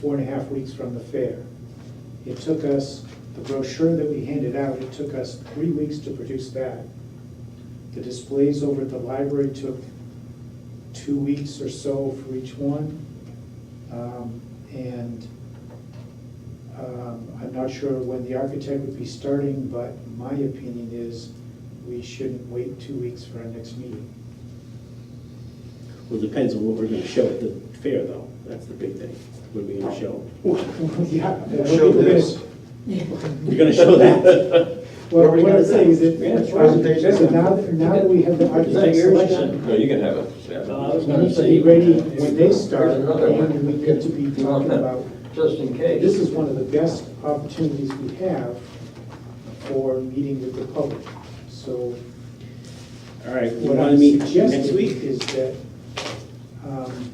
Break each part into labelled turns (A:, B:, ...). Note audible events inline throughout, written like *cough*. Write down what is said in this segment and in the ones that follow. A: four and a half weeks from the fair. It took us, the brochure that we handed out, it took us three weeks to produce that. The displays over at the library took two weeks or so for each one. Um, And um, I'm not sure when the architect would be starting, but my opinion is we shouldn't wait two weeks for our next meeting. *laughs*
B: Well, it depends on what we're gonna show at the fair, though. That's the big thing. What are we gonna show?
A: Yeah.
C: Show this.
B: You're gonna
A: *laughs*
B: show that?
A: Well, what I'm saying is that,
B: Yeah, it's
C: presentation.
A: so now, that- now that we have the architect selection,
D: No, you can have it.
B: No,
D: yeah.
E: Uh,
B: I was
A: we need to be ready when they start, and we need to be talking about,
E: just in case.
A: this is one of the best opportunities we have for meeting with the public. So
B: All right, you
A: What
B: wanna
A: I'm
B: meet
A: suggesting
B: next week?
A: is that um,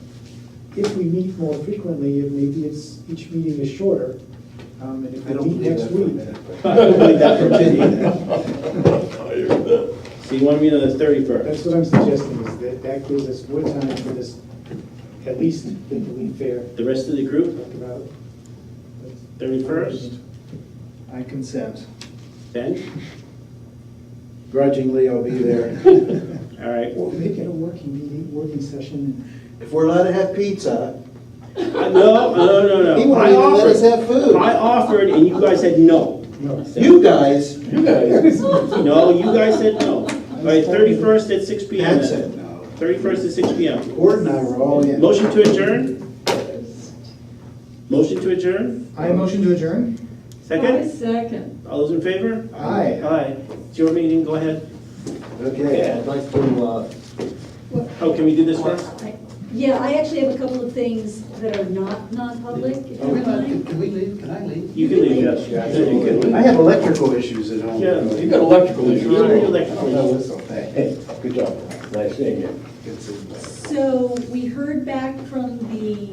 A: if we meet more frequently, and maybe it's, each meeting is shorter, um, and if
C: I
A: we
C: don't
A: meet
C: believe
A: next
C: that for a
A: week.
C: minute.
B: *laughs* I don't believe that for a
E: *laughs*
B: minute.
D: I hear that.
B: So you wanna meet on the thirty-first?
A: That's what I'm suggesting, is that that gives us more time for this, at least, the lead fair,
B: The rest of the group,
A: talk about.
B: thirty-first?
C: I consent.
B: Ben?
C: Grudgingly, I'll be there.
B: All right.
A: Or make it a working meeting, working session.
C: If we're allowed to have pizza,
B: No, no, no, no.
C: he wouldn't
B: I
C: even let us
B: offered-
C: have food.
B: I offered and you guys said no.
A: No.
C: You guys,
D: You guys,
B: No, you guys said no. All right, thirty-first at six P M.
C: Pat said no.
B: Thirty-first at six P M.
C: Gordon and I were all in.
B: Motion to adjourn? Motion to adjourn?
C: I motion to adjourn?
F: I
B: Second?
F: second.
B: All those in favor?
C: Aye.
B: Aye. It's your meeting, go ahead.
C: Okay.
E: I'd like to, uh,
B: Oh, can we do this first?
F: Yeah, I actually have a couple of things that are not non-public, if you
C: Can we
F: don't
C: not-
F: mind.
C: can we leave? Can I leave?
B: You can leave, yes.
C: Yeah,
B: Yeah, you can leave.
C: I have electrical issues at home.
B: Yeah,
D: you got electrical
B: You don't need
D: issues.
B: electrical.
C: Oh, that's okay.
D: Good job. Nice seeing you.
C: It's in-
F: So we heard back from the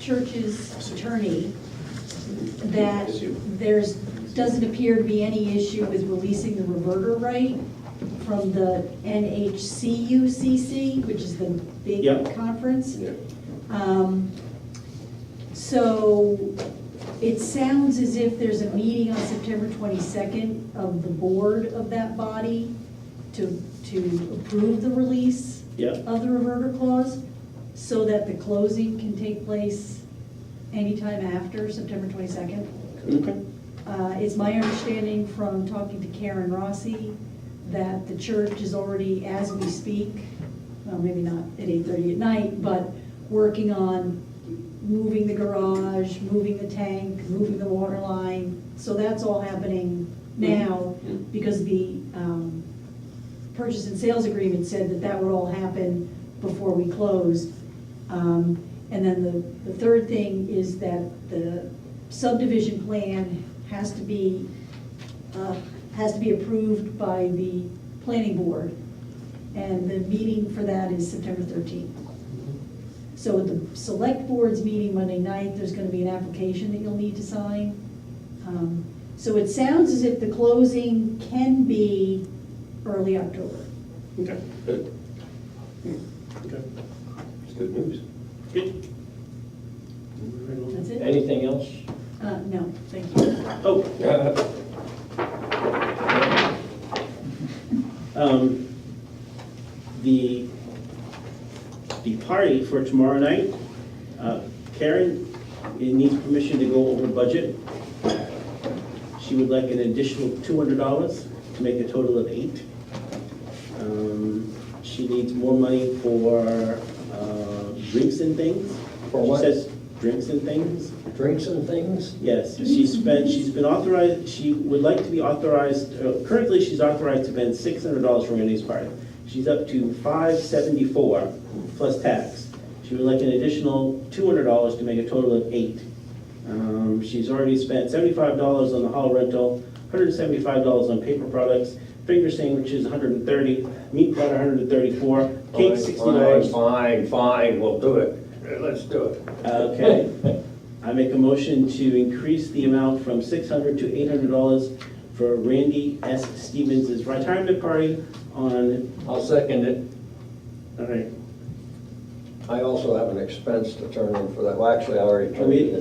F: church's attorney that there's, doesn't appear to be any issue with releasing the reverter right from the NHCUCC, which is the big
B: Yeah.
F: conference.
D: Yeah.
F: Um, So it sounds as if there's a meeting on September 22nd of the board of that body to, to approve the release
B: Yeah.
F: of the reverter clause so that the closing can take place anytime after September 22nd.
B: Okay.
F: Uh, It's my understanding from talking to Karen Rossi that the church is already, as we speak, well, maybe not at eight-thirty at night, but working on moving the garage, moving the tank, moving the water line. So that's all happening now because the um, purchase and sales agreement said that that would all happen before we closed. Um, And then the, the third thing is that the subdivision plan has to be, uh, has to be approved by the planning board. And the meeting for that is September 13th. So at the select board's meeting Monday night, there's gonna be an application that you'll need to sign. Um, So it sounds as if the closing can be early October.
B: Okay.
D: Good.
B: Okay.
D: It's good news.
B: Good.
F: That's it?
E: anything else?
F: Uh, no, thank you.
B: Oh,
D: Yeah.
B: Um, The, the party for tomorrow night, uh, Karen it needs permission to go over budget. She would like an additional $200 to make a total of eight. Um, She needs more money for uh, drinks and things.
E: For what?
B: She says drinks and things.
E: Drinks and things?
B: Yes, she's been, she's been authorized, she would like to be authorized, uh, currently she's authorized to spend six hundred dollars for Randy's party. She's up to five seventy-four plus tax. She would like an additional two hundred dollars to make a total of eight. Um, she's already spent seventy-five dollars on the hall rental, hundred and seventy-five dollars on paper products, finger sandwiches, $130, meat platter, hundred and thirty-four, cake, sixty dollars.
E: Fine, fine, we'll do it. Uh, Let's do it.
B: Okay. I make a motion to increase the amount from six hundred to eight hundred dollars for Randy S. Stevens' retirement party on,
E: I'll second it.
B: all right,
E: I also have an expense to turn in for that. Well, actually, I already
B: Oh,
E: turned
B: we-
E: it in.